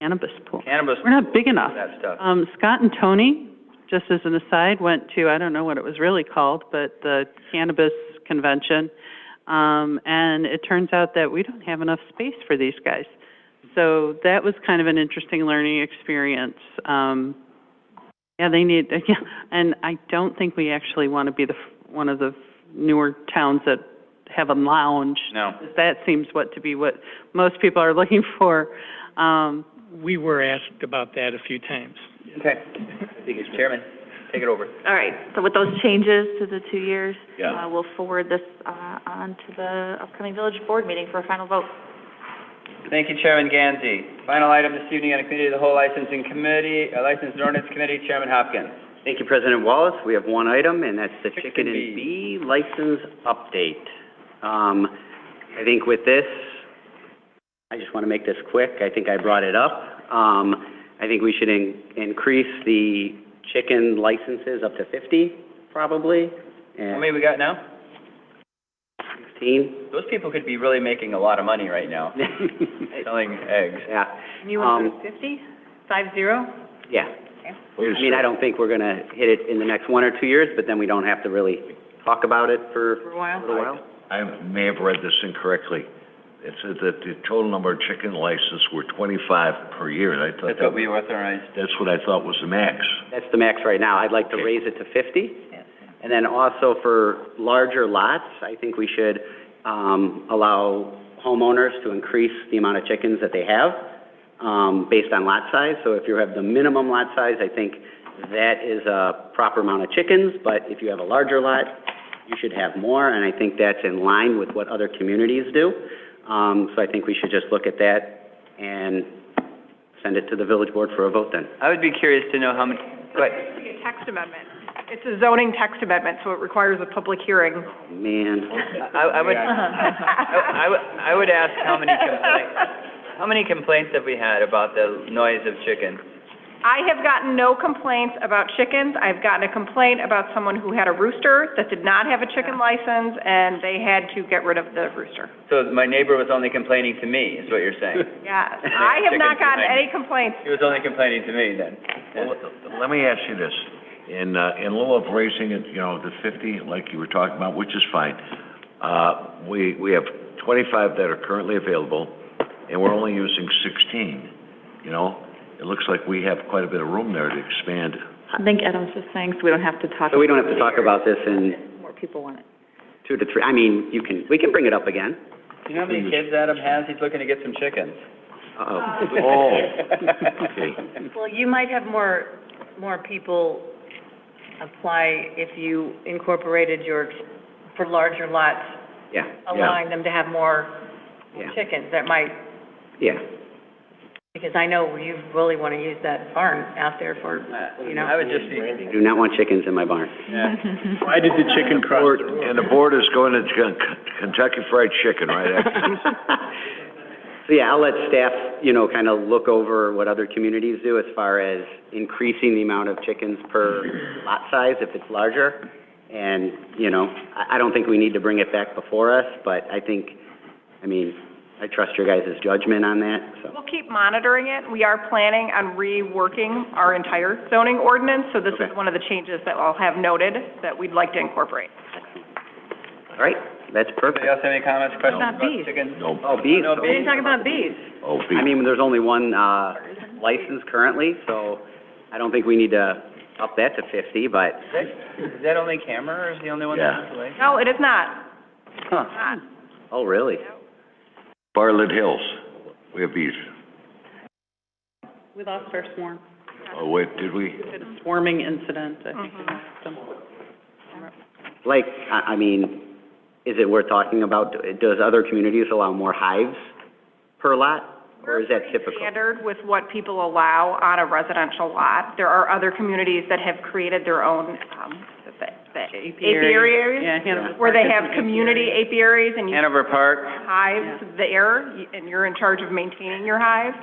cannabis pool. Cannabis, We're not big enough. that stuff. Um, Scott and Tony, just as an aside, went to, I don't know what it was really called, but the cannabis convention. Um, and it turns out that we don't have enough space for these guys. So that was kind of an interesting learning experience. Um, yeah, they need, yeah, and I don't think we actually want to be the, f- one of the newer towns that have a lounge No. that seems what to be what most people are looking for. Um, We were asked about that a few times. Okay. Chairman, take it over. All right, so with those changes to the two years, Yeah. uh, we'll forward this, uh, on to the upcoming village board meeting for a final vote. Thank you, Chairman Ganzi. Final item this evening on the Committee of the Whole Licensing Committee, uh, License and Ordinance Committee, Chairman Hopkins. Thank you, President Wallace. We have one item, and that's the Chicken chicken bee. and bee license update. Um, I think with this, I just want to make this quick. I think I brought it up. Um, I think we should in- increase the chicken licenses up to 50, probably, How and many we got now? 16. Those people could be really making a lot of money right now, selling eggs. Yeah, you want fifty, five zero? yeah. I mean, I don't think we're going to hit it in the next one or two years, but then we don't have to really talk about it for For a while? a little while. I may have read this incorrectly. It said that the total number of chicken licenses were twenty-five per year, and I thought That's what that, we authorized. that's what I thought was the max. That's the max right now. I'd like to Okay. raise it to fifty. And then also for larger lots, I think we should, um, allow homeowners to increase the amount of chickens that they have, um, based on lot size. So if you have the minimum lot size, I think that is a proper amount of chickens, but if you have a larger lot, you should have more, and I think that's in line with what other communities do. Um, so I think we should just look at that and send it to the village board for a vote then. I would be curious to know how many, but, basically a text amendment. It's a zoning text amendment, so it requires a public hearing. Man. I, I would, I, I would, I would ask how many complaints, how many complaints have we had about the noise of chicken? I have gotten no complaints about chickens. I've gotten a complaint about someone who had a rooster that did not have a chicken license, and they had to get rid of the rooster. So my neighbor was only complaining to me, is what you're saying? Yes, I have not gotten any complaints. He was only complaining to me then. Well, let- Let me ask you this, in, uh, in lieu of raising it, you know, to fifty, like you were talking about, which is fine, uh, we, we have twenty-five that are currently available, and we're only using sixteen, you know? It looks like we have quite a bit of room there to expand. I think Adam's just saying, so we don't have to talk. So we don't have to talk about this in More people want it. two to three, I mean, you can, we can bring it up again. Do you know how many kids Adam has? He's looking to get some chickens. Uh-oh. Oh, okay. Well, you might have more, more people apply if you incorporated your, for larger lots, Yeah, allowing them to have more yeah, chickens. That might, yeah. because I know you really want to use that barn out there for, you know. I would just be, I do not want chickens in my barn. yeah. Why did the chicken cross Board- And the board is going to Ken- Kentucky Fried Chicken right after. So, yeah, I'll let staff, you know, kind of look over what other communities do as far as increasing the amount of chickens per lot size if it's larger. And, you know, I, I don't think we need to bring it back before us, but I think, I mean, I trust your guys' judgment on that, so. We'll keep monitoring it. We are planning on reworking our entire zoning ordinance, so this is Okay. one of the changes that I'll have noted that we'd like to incorporate. All right, that's perfect. Anybody else have any comments, questions Not about bees. chickens? No, Oh, bees, No, bees. okay. talk about bees. oh, I beef. mean, there's only one, uh, license currently, so I don't think we need to up that to fifty, but Is that, is that only camera, or is the only one Yeah. that's delayed? No, it is not. Huh. Oh, really? Bartlett Hills, we have beef. We lost our swarm. Oh, wait, did we? Had a swarming incident, I think. Like, I, I mean, is it worth talking about, does other communities allow more hives per lot? Or is that typical? Standard with what people allow on a residential lot. There are other communities that have created their own, um, the- the apiaries, Yeah, Hanover where they Park has have an community apiary. apiaries and you have Hanover Park, hives there, y- and you're in charge of maintaining your hive.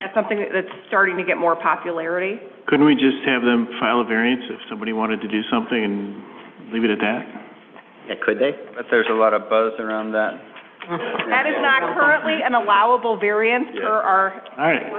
That's something that- that's starting to get more popularity. Couldn't we just have them file a variance if somebody wanted to do something and leave it at that? Yeah, could they? but there's a lot of buzz around that. That is not currently an allowable variance per our All right.